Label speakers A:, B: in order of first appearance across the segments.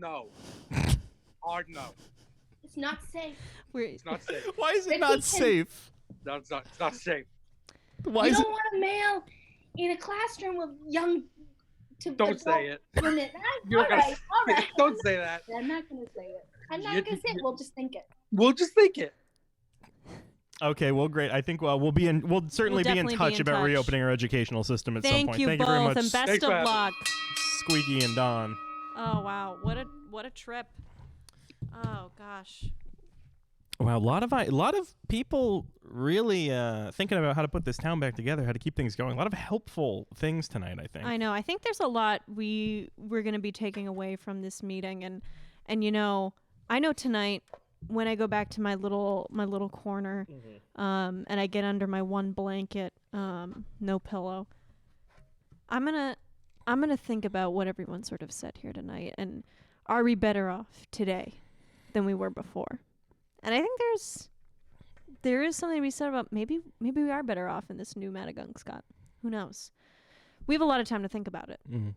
A: no. Hard no.
B: It's not safe.
C: We're,
A: It's not safe.
D: Why is it
B: Ricky
D: not
B: can-
D: safe?
A: That's not, it's not safe.
D: Why
B: you
D: is
B: don't
D: it?
B: want a male in a classroom with young to
A: Don't say it.
B: Women.
A: You're
B: all
A: gonna
B: right, all right.
A: Don't say that.
B: I'm not gonna say it. I'm not
A: You-
B: gonna say it.
A: you-
B: We'll just think it.
A: We'll just think it.
D: Okay, well, great. I think uh, we'll be in. We'll certainly be in
C: definitely be
D: touch
C: in
D: about
C: touch.
D: reopening our educational system at some
C: thank
D: point.
C: you
D: thank
C: both,
D: you very much,
C: and best
A: Thanks for
C: of
A: having me.
C: luck.
D: Squeaky and Don.
C: Oh wow, what a what a trip. Oh gosh.
D: Wow, a lot of I, a lot of people really uh, thinking about how to put this town back together, how to keep things going. A lot of helpful things tonight, I think.
C: I know. I think there's a lot we we're going to be taking away from this meeting and and you know, I know tonight when I go back to my little my little corner um and I get under my one blanket, um no pillow. I'm going to I'm going to think about what everyone sort of said here tonight and are we better off today than we were before? And I think there's there is something to be said about maybe maybe we are better off in this new Madagung Scott. Who knows? We have a lot of time to think about it.
D: Mhm.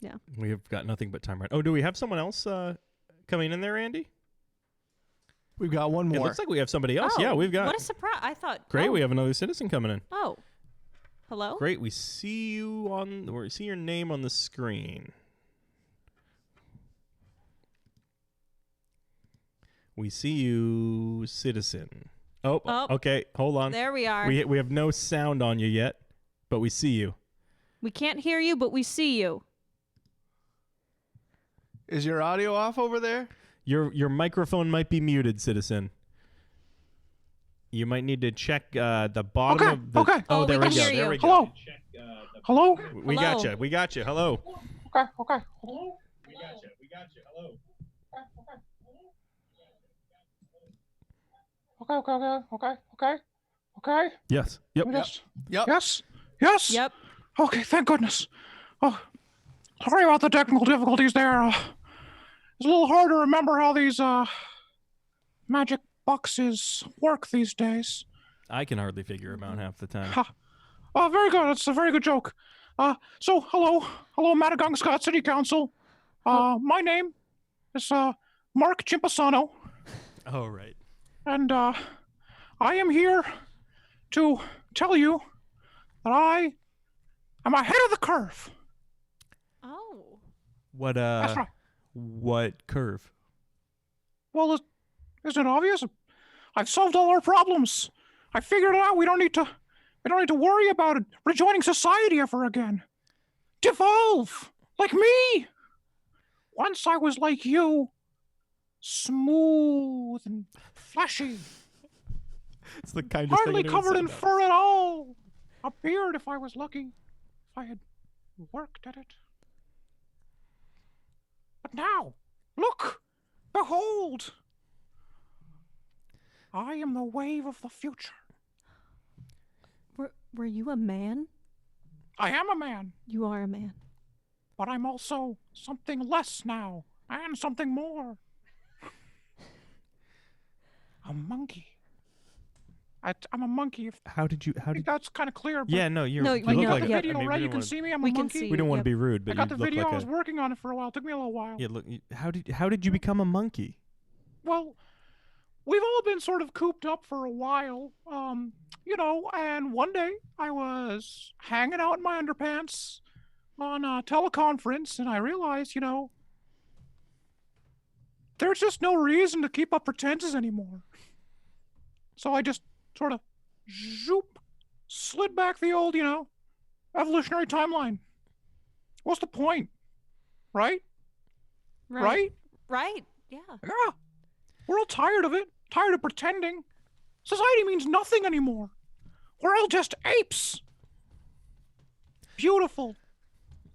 C: Yeah.
D: We have got nothing but time right. Oh, do we have someone else uh, coming in there, Andy?
E: We've got one
D: It
E: more.
D: looks like we have somebody else. yeah, we've got.
C: Oh, What a surprise! I thought.
D: great,
C: Oh,
D: we have another citizen coming in.
C: Oh, hello.
D: Great, we see you on. We see your name on the screen. We see you, citizen. Oh,
C: Oh.
D: okay. Hold on.
C: There we are.
D: We we have no sound on you yet, but we see you.
C: We can't hear you, but we see you.
E: Is your audio off over there?
D: Your your microphone might be muted, citizen. You might need to check uh, the bottom
A: Okay,
D: of the.
A: okay.
C: Oh,
D: Oh,
C: we
D: there
C: can
D: go.
C: hear
D: There
C: you.
D: we go. uh,
A: Hello. Hello.
D: We
C: Hello.
D: got you. We got you. Hello.
A: Okay. Okay. Okay. Okay. Okay. Okay. Okay. Okay.
D: Yes. Yep.
A: Yes.
E: Yep.
A: Yes. Yes.
C: Yep.
A: Okay. Thank goodness. Oh, sorry about the technical difficulties there. Uh, it's a little hard to remember how these uh magic boxes work these days.
D: I can hardly figure him out half the time.
A: Ha. Oh, very good. That's a very good joke. Uh, so hello, hello, Madagung Scott City Council. Uh, my name is uh Mark Chimpasano.
D: Oh right.
A: And uh, I am here to tell you that I am ahead of the curve.
C: Oh.
D: What uh?
A: That's right.
D: What curve?
A: Well, is- isn't it obvious? I've solved all our problems. I figured it out. We don't need to. We don't need to worry about it. rejoining society ever again. Devolve like me. Once I was like you, smooth and fleshy.
D: It's the kindest
A: hardly covered in fur at all. A beard, if I was lucky, if I had worked at it. But now, look, behold, I am the wave of the future.
C: Were Were you a man?
A: I am a man,
C: You are a man.
A: but I'm also something less now, and something more. a monkey. I, am a monkey. If,
D: How did you? How
A: I think
D: did?
A: that's kind of clear. But
D: Yeah, no, you're.
C: No,
D: you
C: we
D: look
A: you
C: know-
D: like
A: got
C: yeah.
A: the
D: a-
A: video,
D: I mean,
A: right?
D: we
A: You
D: don't
A: can
D: wanna-
A: see me. I'm a
C: we can
A: monkey.
C: see
D: We don't want to
C: Yep.
D: be rude, but
A: I got the
D: you look
A: video
D: like
A: I
D: a-
A: was working on it for a while. took me a little while.
D: Yeah, look. you- How did how did you become a monkey?
A: Well, we've all been sort of cooped up for a while, um, you know. And one day I was hanging out in my underpants on a teleconference, and I realized, you know, there's just no reason to keep up pretenses anymore. So I just sort of zoop, slid back the old, you know, evolutionary timeline. What's the point? Right? right?
C: Right. Yeah.
A: Yeah. We're all tired of it, tired of pretending. Society means nothing anymore. We're all just apes. Beautiful,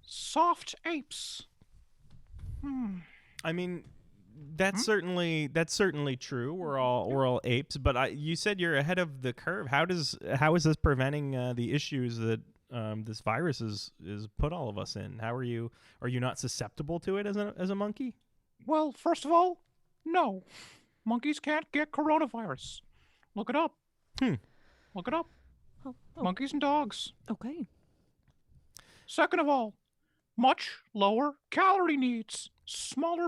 A: soft apes. Hmm.
D: I mean, that's certainly that's certainly true.
A: Hmm?
D: We're all we're all apes, but I, you said you're ahead of the curve. How does how is this preventing uh, the issues that um, this virus is is put all of us in? How are you are you not susceptible to it as a as a monkey?
A: Well, first of all, no. Monkeys can't get coronavirus. Look it up.
D: Hmm.
A: Look it up.
C: Oh, oh,
A: Monkeys and dogs.
C: Okay.
A: Second of all, much lower calorie needs, smaller